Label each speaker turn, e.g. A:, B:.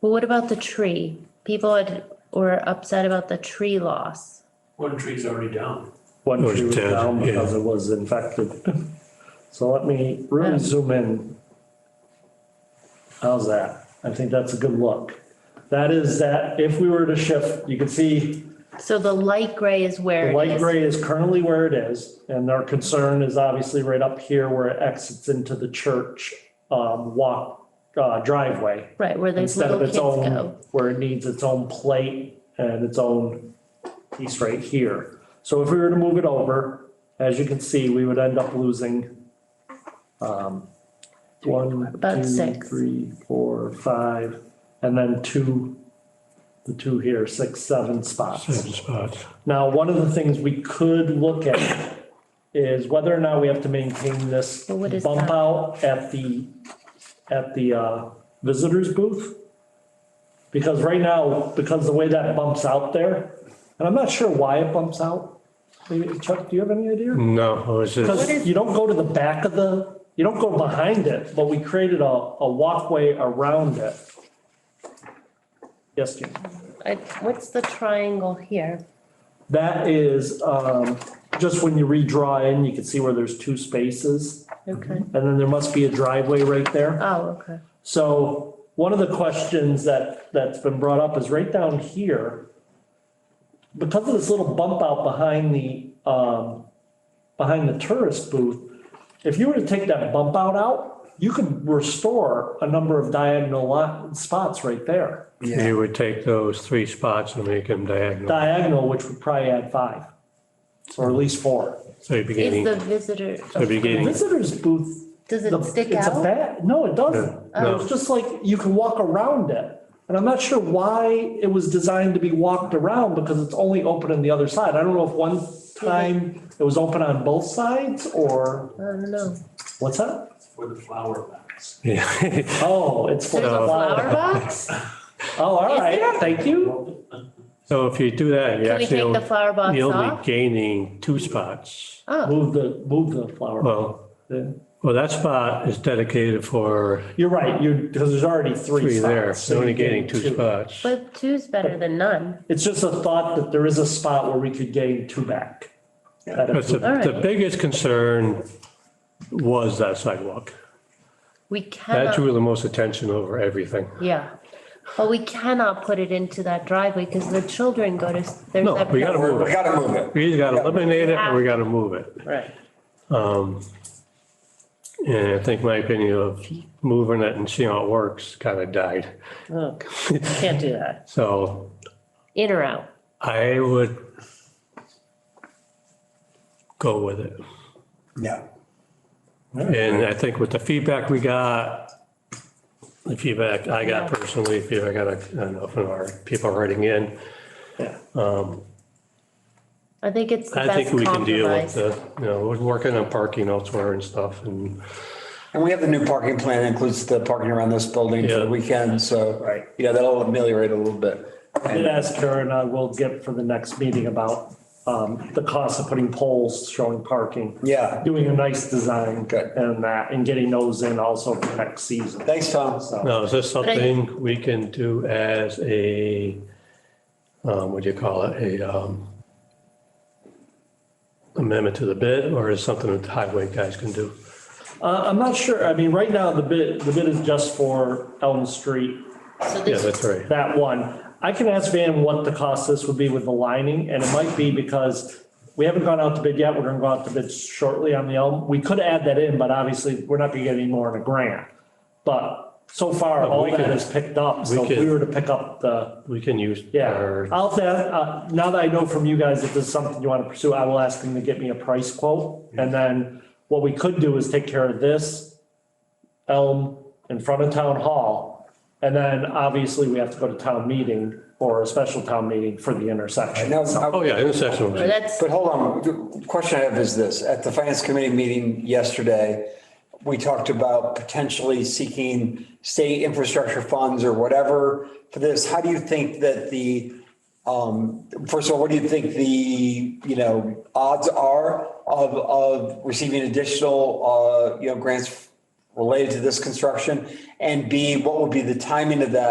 A: Well, what about the tree? People had, were upset about the tree loss.
B: One tree's already down.
C: One
D: Or
C: tree was
D: dead,
C: down
D: yeah.
C: because it was infected. So let me really zoom in. How's that? I think that's a good look. That is that, if we were to shift, you can see
A: So the light gray is where
C: the
A: it
C: light
A: is.
C: gray is currently where it is. And our concern is obviously right up here where it exits into the church, um, walk, uh, driveway.
A: Right, where those
C: Instead
A: little
C: of
A: kids
C: its
A: go.
C: own, where it needs its own plate and its own piece right here. So if we were to move it over, as you can see, we would end up losing um, one,
A: About
C: two,
A: six.
C: three, four, five, and then two, the two here, six, seven spots.
D: Seven spots.
C: Now, one of the things we could look at is whether or not we have to maintain this
A: Well, what is
C: bump
A: that?
C: out at the, at the uh, visitors booth. Because right now, because the way that bumps out there, and I'm not sure why it bumps out. Maybe- Chuck, do you have any idea?
D: No, it was just,
C: Because you don't go to the back of the, you don't go behind it, but we created a, a walkway around it. Yes, Jim?
A: I- What's the triangle here?
C: That is, um, just when you redraw in, you can see where there's two spaces,
A: Okay.
C: and then there must be a driveway right there.
A: Oh, okay.
C: So one of the questions that, that's been brought up is right down here. Because of this little bump out behind the, um, behind the tourist booth, if you were to take that bump out out, you could restore a number of diagonal lot, spots right there.
D: you would take those three spots and make them diagonal.
C: Diagonal, which would probably add five, or at least four.
D: So you're
A: Is
D: beginning,
A: the visitor,
D: so you're beginning,
C: Visitor's booth.
A: does
C: the-
A: it stick
C: it's a
A: out? Oh.
C: bat- No, it doesn't.
D: Yeah, no.
C: It's just like, you can walk around it. And I'm not sure why it was designed to be walked around because it's only open on the other side. I don't know if one time it was open on both sides or,
A: I don't know.
C: what's that?
B: It's for the flower box.
D: yeah,
C: Oh, it's for
A: There's
C: the
A: a flower
C: flower.
A: box?
C: Oh, all
A: Is
C: right,
A: there?
C: thank you.
D: So if you do that,
A: Can
D: you
A: we
D: actually,
A: take the
D: only-
A: flower box
D: you're only
A: off?
D: gaining two spots.
A: Oh,
C: Move the, move the flower.
D: Well,
C: Yeah.
D: well, that spot is dedicated for
C: You're right, you, because there's already three
D: three
C: spots.
D: there,
C: so
D: you're only
C: you're
D: gaining two spots.
A: but two's better than none.
C: It's just a thought that there is a spot where we could gain two back. That
D: But
C: is-
D: the, the
A: Alright.
D: biggest concern was that sidewalk.
A: We
D: That
A: cannot,
D: drew the most attention over everything.
A: yeah. But we cannot put it into that driveway because the children go to, s- there's
D: No,
A: that.
D: we gotta move
E: We
D: it.
E: gotta move it.
D: We either gotta eliminate it or we gotta move it.
A: Right.
D: Um, And I think my opinion of moving it and seeing how it works kind of died.
A: Oh, Can't do that.
D: So
A: In or out?
D: I would go with it.
E: Yeah.
D: And I think with the feedback we got, the feedback I got personally, feedback I got, I don't know, from our people writing in,
A: I think it's the
D: I think
A: best
D: we can deal with uh,
A: compromise.
D: the, you know, we're working on parking elsewhere and stuff and
E: And we have the new parking plan that includes the parking around this building for
D: Yeah.
E: the weekend, so.
C: Right.
E: Yeah, that'll ameliorate a little bit.
C: I did ask her and I will get for the next meeting about um, the cost of putting poles showing parking.
E: Yeah.
C: Doing a nice design.
E: Good.
C: And that, and getting those in also for next season.
E: Thanks, Tom.
C: So,
D: Now, is this
A: I-
D: something we can do as a, um, what do you call it, a, um, amendment to the bid, or is something that the highway guys can do?
C: uh, I'm not sure, I mean, right now, the bid, the bid is just for Elm Street,
A: So
D: Yeah,
A: this
D: that's right.
C: that one. I can ask Van what the cost this would be with the lining, and it might be because we haven't gone out to bid yet, we're gonna go out to bid shortly on the Elm. We could add that in, but obviously, we're not gonna get any more in a grant. But so far,
D: No,
C: all
D: we
C: that
D: could-
C: is picked up, so if
D: could-
C: we were to pick up the
D: We can use
C: Yeah,
D: our,
C: I'll, have to, uh, now that I know from you guys if this is something you want to pursue, I will ask them to get me a price quote. And then what we could do is take care of this elm in front of town hall. And then obviously we have to go to town meeting or a special town meeting for the intersection.
E: Now,
D: oh,
E: I-
D: yeah, intersection. was-
A: That's,
E: But hold on, the question I have is this, at the finance committee meeting yesterday, we talked about potentially seeking state infrastructure funds or whatever for this. How do you think that the, um, first of all, what do you think the, you know, odds are of, of receiving additional, uh, you know, grants related to this construction? And B, what would be the timing of that?